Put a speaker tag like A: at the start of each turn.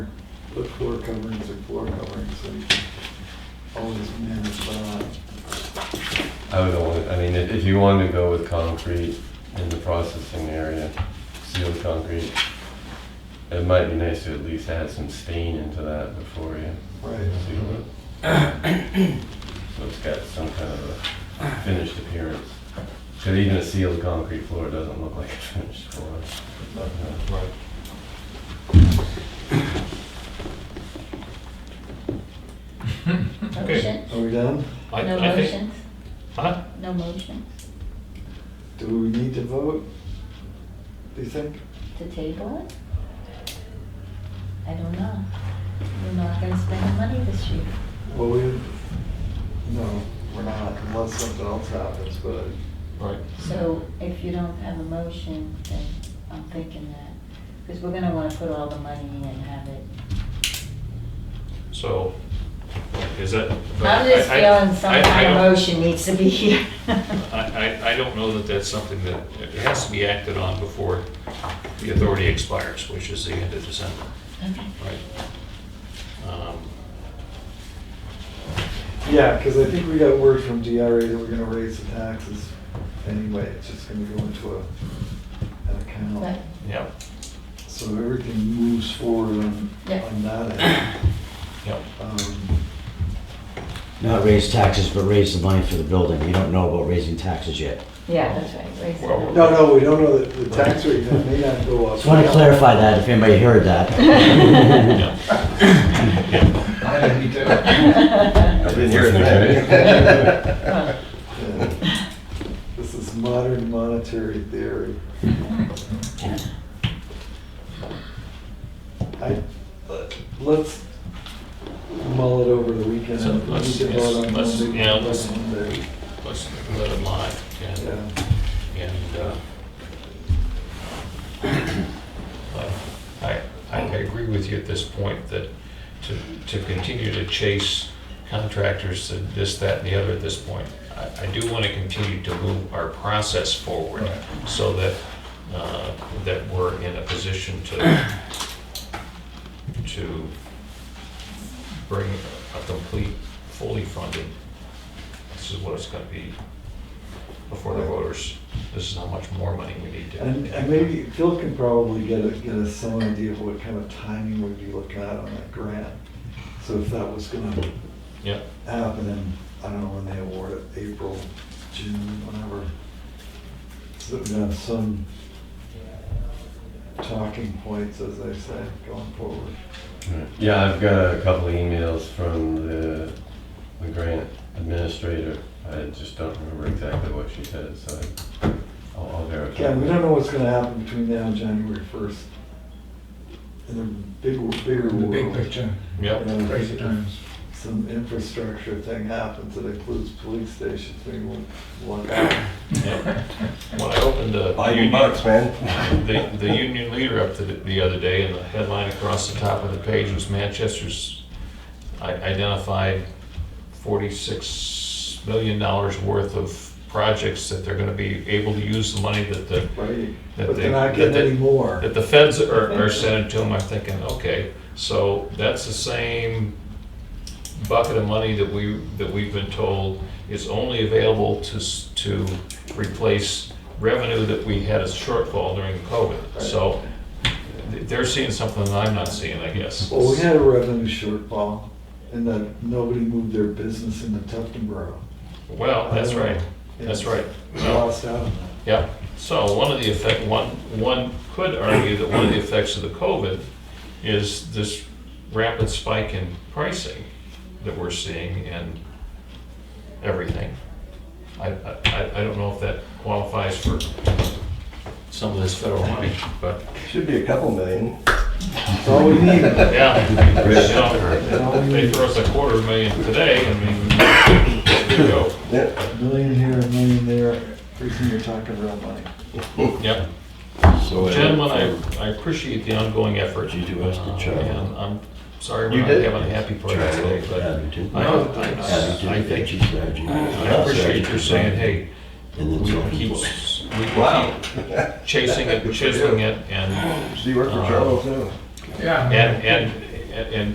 A: put floor coverings and floor coverings and always manage that.
B: I would only, I mean, if if you wanted to go with concrete in the processing area, sealed concrete, it might be nice to at least add some stain into that before you
A: Right.
B: seal it. So it's got some kind of a finished appearance. Because even a sealed concrete floor doesn't look like a finished floor.
A: Right.
C: Motion?
A: Are we done?
D: I-
C: No
D: I think-
C: motions?
D: Huh?
C: No motions
A: Do we need to vote? Do you think?
C: to table it? I don't know. We're not gonna spend the money this year.
A: Well, we, no, we're not unless something else happens, but
D: Right.
C: So if you don't have a motion, then I'm thinking that, because we're gonna wanna put all the money in and have it.
D: So, is that?
C: I'm just
D: I- I-
C: feeling some
D: I- I
C: kind of
D: don't-
C: motion needs to be here.
D: I, I, I don't know that that's something that, it has to be acted on before the authority expires, which is the end of December,
C: Okay.
D: right? Um,
A: Yeah, because I think we got word from DRA that we're gonna raise the taxes anyway, it's just gonna go into a, an account.
C: Right.
D: Yep,
A: So everything moves forward on,
C: Yeah.
A: on that end.
D: yep.
A: Um,
E: Not raise taxes, but raise the money for the building. You don't know about raising taxes yet.
C: Yeah, that's right. raise it.
D: Well-
A: No, no, we don't know that the tax rate may not go up.
E: Just want to clarify that if anybody heard that.
F: Yeah, me too.
B: I've been hearing
A: that. Yeah. This is modern monetary theory. I, uh, let's mull it over the weekend.
D: So
A: We
D: let's-
A: can vote on
D: let's-
A: Monday,
D: yeah, let's-
A: Monday.
D: Let's let it lie, and,
A: Yeah.
D: and, uh, but I, I agree with you at this point that to, to continue to chase contractors, to this, that, and the other at this point, I, I do want to continue to move our process forward so that, uh, that we're in a position to, to bring a complete, fully funded, this is what it's going to be before the voters. This is how much more money we need to.
A: And, and maybe Phil can probably get a, get us some idea of what kind of timing we'd be looking at on that grant. So if that was gonna
D: Yeah,
A: happen in, I don't know when they award it, April, June, whenever. So that we have some talking points, as I say, going forward.
B: Yeah, I've got a couple of emails from the, the grant administrator. I just don't remember exactly what she said, so I- I'll I'll verify.
A: Again, we don't know what's gonna happen between now and January first. In the big, bigger
F: The big
A: world.
F: picture,
A: you
D: yeah,
A: know,
F: crazy times.
A: Some infrastructure thing happens that includes police stations, maybe we'll look out.
D: yeah. When I opened the. union-
B: man.
D: The, the union leader up the, the other day and the headline across the top of the page was Manchester's i- identified forty-six million dollars worth of projects that they're gonna be able to use the money that the,
A: Right,
D: That
A: but
D: they-
A: they're not
D: that
A: getting
D: they-
A: any more.
D: that the feds are, are sending to them. I'm thinking, okay, so that's the same bucket of money that we, that we've been told is only available to, s- to replace revenue that we had a shortfall during COVID. So th- they're seeing something that I'm not seeing, I guess.
A: Well, we had a revenue shortfall and that nobody moved their business into Tufton Borough.
D: Well, Oh, that's right, that's right.
A: We lost out on that.
D: Yeah, so one of the effect, one, one could argue that one of the effects of the COVID is this rapid spike in pricing that we're seeing in everything. I, I, I- I don't know if that qualifies for some of this federal money, but,
B: Should be a couple million.
A: That's all we need.
D: yeah.
B: Right.
D: you know, They throw us a quarter million today, I mean, there you go.
A: A Million here, a million there. Pretty soon you're talking real money.
D: Yep.
G: So, uh,
D: Gentlemen, I, I appreciate the ongoing effort.
G: You do us the job.
D: And I'm sorry we're
G: You
D: not
G: did.
D: having a happy party today, but
G: Happy to.
D: I,
G: Happy
D: I, I
G: to, thank you,
D: think,
G: Sergeant.
D: I appreciate your saying, hey,
G: And then
D: we
G: so
D: can keep,
G: forth.
D: we can keep chasing it, chiseling it, and,
B: She worked
D: uh, for Charles
B: now.
F: Yeah.
D: and, and and, and